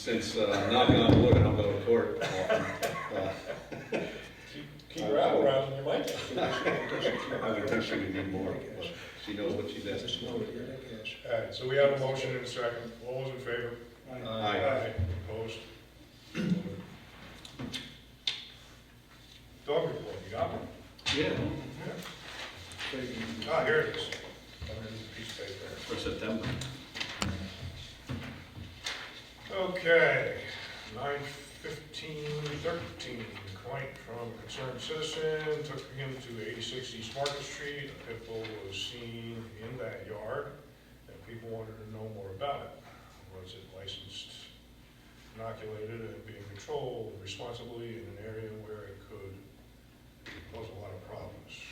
since uh, knocking on wood, I don't go to court often, uh, Keep, keep her out around, you might. I would think she would need more. but She knows what she's asking. All right, so we have a motion in a second, all those in favor? Aye. Opposed? Dog report, you got one? Yeah, Mm-hmm. Ah, here it is. Under the piece of paper. for September. Okay, nine fifteen thirteen, complaint from concerned citizen, took him to eighty-six East Market Street. A pit bull was seen in that yard, and people wanted to know more about it. Was it licensed, inoculated, and being controlled responsibly in an area where it could cause a lot of problems? Uh,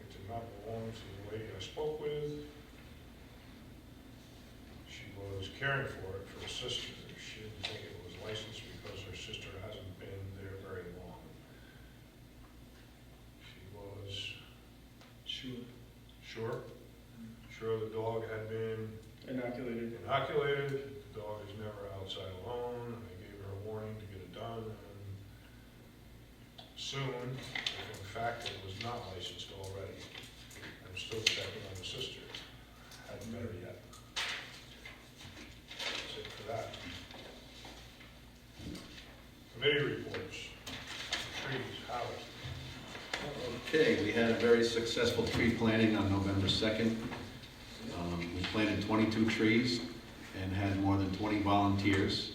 It did not belong to the lady I spoke with. She was caring for it for her sister. She didn't think it was licensed because her sister hasn't been there very long. She was Sure. sure, sure the dog had been Inoculated. inoculated. The dog is never outside alone. I gave her a warning to get it done and soon, if in fact it was not licensed already. I'm still checking on the sister. Hadn't met her yet. That's it for that. Committee reports. Trees, Howard. Okay, we had a very successful tree planting on November 2nd. Um, We planted 22 trees and had more than 20 volunteers.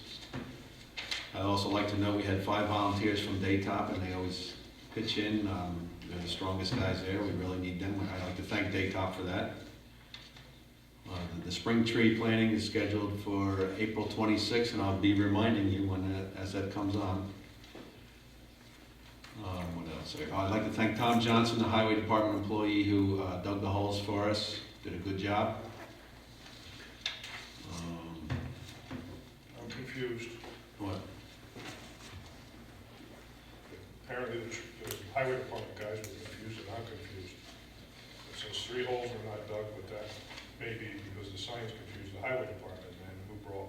I'd also like to note we had five volunteers from Daytop, and they always pitch in. Um, They're the strongest guys there, we really need them. I'd like to thank Daytop for that. Uh, the- The spring tree planting is scheduled for April 26th, and I'll be reminding you when, that- as that comes on. Um, what else? I'd like to thank Tom Johnson, the highway department employee who uh, dug the holes for us, did a good job. Um, I'm confused. What, Apparently the tr- the highway department guys were confused and I'm confused. It says three holes were not dug, but that may be because the signs confused the highway department and who brought,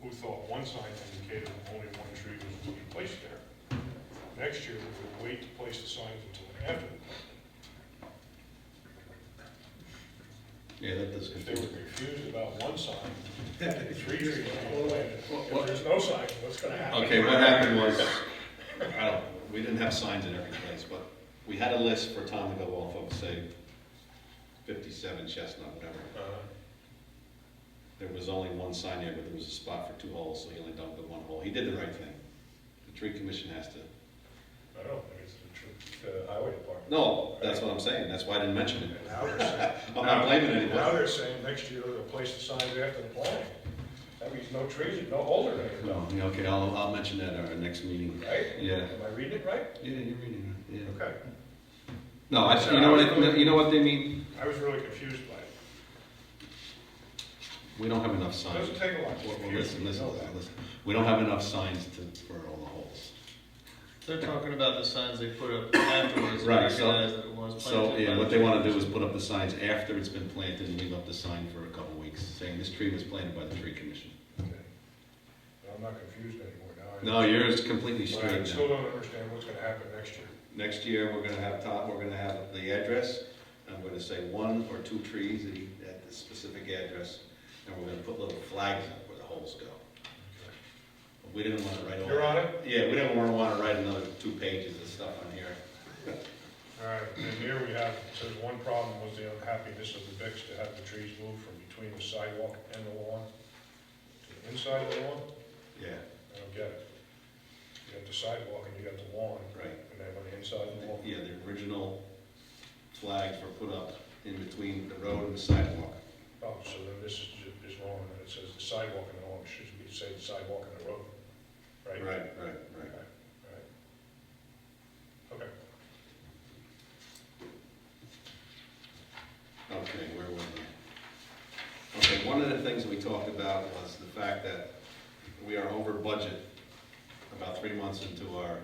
who thought one sign indicated only one tree was to be placed there. Next year, we would wait to place the signs until after, yeah, that does if they were confuse. confused about one sign, three trees were planted. If there's no sign, what's gonna happen? Okay, what happened was, I don't, we didn't have signs in every place, but we had a list for Tom to go off of, say, fifty-seven Chestnut, whatever. Uh, There was only one sign there, but there was a spot for two holes, so he only dug the one hole. He did the right thing. The tree commission has to I don't think it's the tr- the highway department. No, that's what I'm saying, that's why I didn't mention it. And now they're saying- I'm not blaming Now anybody. they're saying next year they'll place the signs after the planting. That means no trees and no older than No, yeah, okay, I'll, I'll mention that at our next meeting. right? Yeah. Am I reading it right? Yeah, you're reading it, yeah. Okay. No, I, you know what, I- you know what they mean? I was really confused by it. We don't have enough It signs. Doesn't take a lot to Well, well, confuse listen, me, you listen, know that. listen. We don't have enough signs to, for all the holes. They're talking about the signs they put up afterwards, Right, and so- realize that it was So, planted yeah, by what the they wanna do is put up the signs after it's been planted and leave up the sign for a couple weeks, saying this tree was planted by the tree commission. Okay. But I'm not confused anymore now. I- No, yours is completely But I straight now. still don't understand what's gonna happen next year. Next year, we're gonna have top, we're gonna have the address, I'm gonna say one or two trees at e- at the specific address, and we're gonna put little flags up where the holes go. We didn't wanna write all. You're on it? Yeah, we didn't wanna wanna write another two pages of stuff on here. All right, and here we have, it says one problem was the unhappiness of the Vicks to have the trees moved from between the sidewalk and the lawn to the inside of the lawn. Yeah, I don't get it. You got the sidewalk and you got the lawn, right. and then on the inside of the lawn. Yeah, the original flags were put up in between the road and the sidewalk. Oh, so then this is, ju- is wrong, and it says the sidewalk and the lawn, should be say the sidewalk and the road, right? Right, right, right. Right. Okay, Okay, where were we? Okay, one of the things we talked about was the fact that we are over budget about three months into our,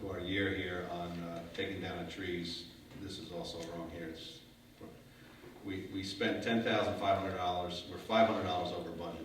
to our year here on uh, taking down the trees. This is also wrong here, it's, We, we spent ten thousand five hundred dollars, we're five hundred dollars over budget.